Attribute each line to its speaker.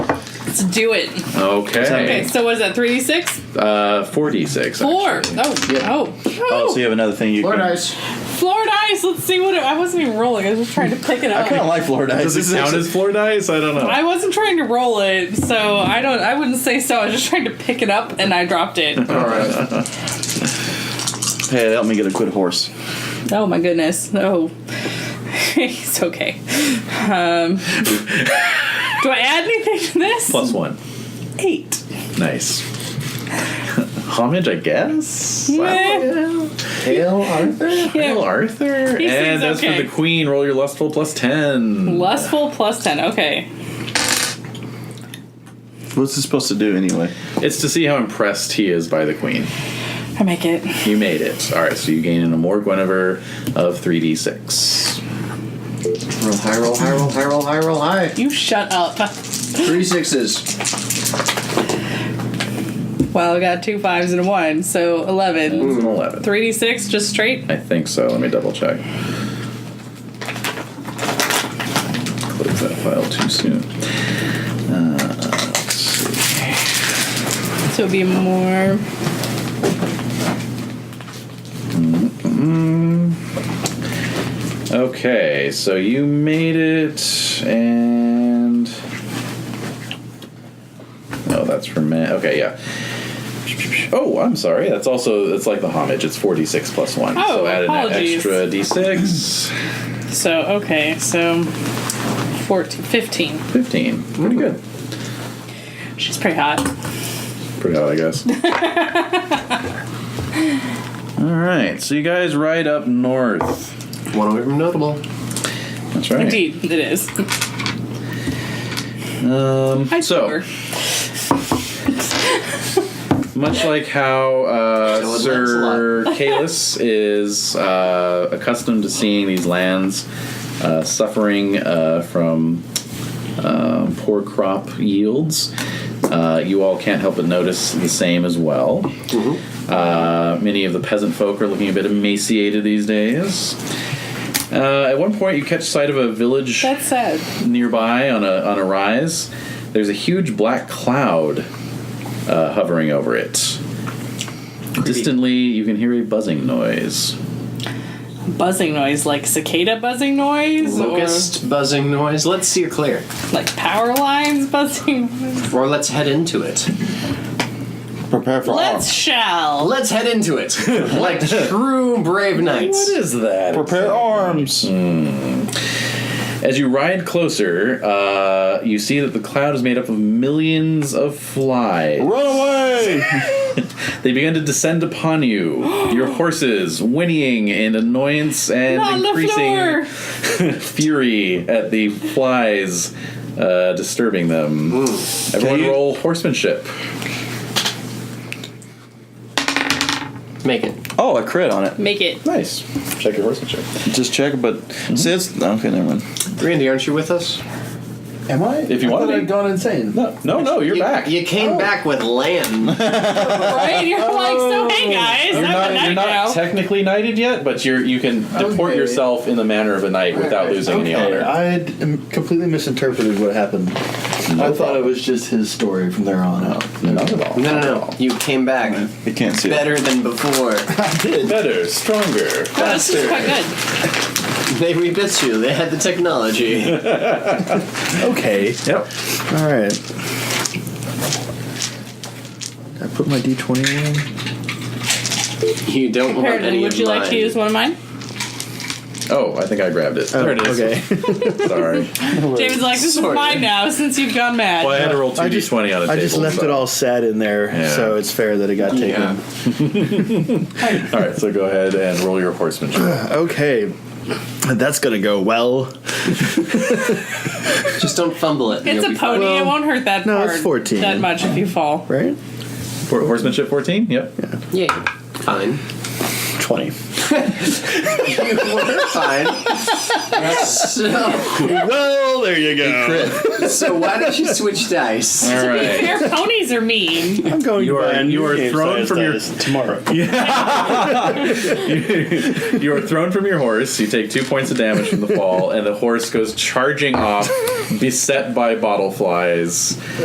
Speaker 1: Let's do it.
Speaker 2: Okay.
Speaker 1: Okay, so what is that? Three d six,
Speaker 2: Uh, 46.
Speaker 1: four.
Speaker 2: actually.
Speaker 1: Oh,
Speaker 3: Yeah.
Speaker 1: oh,
Speaker 3: Oh, so you have another thing you
Speaker 4: Four
Speaker 3: can.
Speaker 4: dice.
Speaker 1: Floor dice. Let's see what it, I wasn't even rolling. I was just trying to pick it
Speaker 3: I kind of
Speaker 1: up.
Speaker 3: like Florida.
Speaker 2: Does it count as floor dice? I don't know.
Speaker 1: I wasn't trying to roll it, so I don't. I wouldn't say so. I was just trying to pick it up, and I dropped it.
Speaker 4: All right.
Speaker 3: Hey, help me get a quid horse.
Speaker 1: oh my goodness. Oh, it's okay. Um, do I add anything to this?
Speaker 3: Plus one.
Speaker 1: Eight.
Speaker 2: Nice. Homage, I guess?
Speaker 1: Meh.
Speaker 4: Hail Arthur.
Speaker 1: Yeah.
Speaker 2: Hail Arthur.
Speaker 1: He seems
Speaker 2: and that's
Speaker 1: okay.
Speaker 2: for the queen. Roll your lustful plus 10.
Speaker 1: Lustful plus ten. Okay.
Speaker 3: What's it supposed to do anyway?
Speaker 2: It's to see how impressed he is by the queen.
Speaker 1: I make it.
Speaker 2: You made it. All right, so you gain an Amor Guinevere of 3d6.
Speaker 4: Roll high, roll high, roll high, roll high, roll high.
Speaker 1: You shut up.
Speaker 4: Three sixes.
Speaker 1: Well, I got two fives and a one, so eleven.
Speaker 2: It's an 11.
Speaker 1: Three d six, just straight.
Speaker 2: I think so. Let me double check. Close that file too soon.
Speaker 1: So it'd be more.
Speaker 2: Okay, so you made it, and oh, that's for me. Okay, yeah. Oh, I'm sorry. That's also that's like the homage. It's 46 plus one.
Speaker 1: Oh,
Speaker 2: so add
Speaker 1: apologies.
Speaker 2: an extra d6.
Speaker 1: So okay, so 14, 15.
Speaker 2: 15. Pretty good.
Speaker 1: She's pretty hot.
Speaker 2: Pretty hot, I guess. All right, so you guys ride up north.
Speaker 4: One away from notable.
Speaker 2: That's right.
Speaker 1: Indeed, it is.
Speaker 2: Um,
Speaker 1: I
Speaker 2: so.
Speaker 1: swear.
Speaker 2: Much like how uh,
Speaker 4: Showing
Speaker 2: Sir Kalis is uh, accustomed to seeing these lands uh, suffering uh, from um, poor crop yields, uh, you all can't help but notice the same as well. Uh, many of the peasant folk are looking a bit emaciated these days. Uh, at one point, you catch sight of a village
Speaker 1: That's sad.
Speaker 2: nearby on a on a rise, there's a huge black cloud uh, hovering over it. Distantly, you can hear a buzzing noise.
Speaker 1: Buzzing noise, like cicada buzzing noise,
Speaker 4: Locust buzzing noise. Let's see it clear.
Speaker 1: or like power lines buzzing. noise.
Speaker 4: Or let's head into it.
Speaker 3: Prepare for
Speaker 1: Let's shall.
Speaker 4: Let's head into it. like true brave knights.
Speaker 2: is that?
Speaker 3: arms. Prepare arms.
Speaker 2: As you ride closer, uh, you see that the cloud is made up of millions of flies.
Speaker 3: Run away!
Speaker 2: They begin to descend upon you, your horses whinnying in annoyance and
Speaker 1: Not
Speaker 2: increasing
Speaker 1: Lafleur.
Speaker 2: fury at the flies uh, disturbing them. Everyone
Speaker 3: Can you-
Speaker 2: roll horsemanship.
Speaker 4: Make it.
Speaker 3: oh, a crit on it.
Speaker 1: Make it.
Speaker 2: Nice. Check your horsemanship.
Speaker 3: Just check, but see, it's okay. Never mind.
Speaker 4: Randy, aren't you with us?
Speaker 5: Am I?
Speaker 2: If you
Speaker 5: I
Speaker 2: wanna
Speaker 5: thought
Speaker 2: be.
Speaker 5: I'd gone insane.
Speaker 2: No, no, no you're
Speaker 4: you,
Speaker 2: back.
Speaker 4: You came back with land.
Speaker 1: Right? You're like, so hey guys,
Speaker 2: Oh. You're
Speaker 1: I'm
Speaker 2: not,
Speaker 1: a knight
Speaker 2: you're not
Speaker 1: now.
Speaker 2: technically knighted yet, but you're you can deport
Speaker 5: Okay.
Speaker 2: yourself in the manner of a knight without losing any
Speaker 5: Okay,
Speaker 2: honor.
Speaker 5: I had um, completely misinterpreted what happened. I thought it was just his story from there on out.
Speaker 2: Not at all.
Speaker 4: No, no, no. You came back
Speaker 3: You can't see it.
Speaker 4: better than before.
Speaker 5: I did.
Speaker 2: Better, stronger.
Speaker 1: Oh, this is quite good.
Speaker 4: They rebit you. They had the technology.
Speaker 5: Okay.
Speaker 2: Yep.
Speaker 5: All right. Did I put my d20 in.
Speaker 4: You don't want
Speaker 1: Pardon,
Speaker 4: any
Speaker 1: would
Speaker 4: of
Speaker 1: you
Speaker 4: mine.
Speaker 1: like to use one of mine?
Speaker 2: Oh, I think I grabbed it.
Speaker 5: Oh,
Speaker 2: there it is.
Speaker 5: Okay.
Speaker 2: Sorry.
Speaker 1: David's like, this
Speaker 4: Sorta.
Speaker 1: is mine now since you've gone mad.
Speaker 2: Well, I had to roll two
Speaker 5: I
Speaker 2: d
Speaker 5: just-
Speaker 2: twenty on a
Speaker 5: I
Speaker 2: table.
Speaker 5: just left
Speaker 2: so-
Speaker 5: it all sad in there,
Speaker 2: Yeah.
Speaker 5: so it's fair that it got taken.
Speaker 4: Yeah.
Speaker 2: All right, so go ahead and roll your horsemanship.
Speaker 5: Okay. That's gonna go well.
Speaker 4: Just don't fumble it.
Speaker 1: It's
Speaker 4: You'll
Speaker 1: a
Speaker 4: be
Speaker 1: pony.
Speaker 4: fine.
Speaker 1: it won't hurt that
Speaker 5: no, it's
Speaker 1: hard-
Speaker 5: 14.
Speaker 1: that much if you fall.
Speaker 5: Right?
Speaker 2: For, horsemanship fourteen. Yep.
Speaker 4: Yeah. Fine.
Speaker 5: 20.
Speaker 4: you were fine. so,
Speaker 5: well, there you go.
Speaker 4: so why don't you switch dice?
Speaker 2: All right.
Speaker 1: Fair ponies are mean.
Speaker 5: I'm going
Speaker 2: You
Speaker 5: to
Speaker 2: are-
Speaker 5: buy a
Speaker 2: you
Speaker 5: new
Speaker 2: are
Speaker 5: game
Speaker 2: thrown
Speaker 5: size
Speaker 2: from your-
Speaker 5: dice tomorrow.
Speaker 2: You are thrown from your horse. You take two points of damage from the fall, and the horse goes charging off, beset by bottle flies.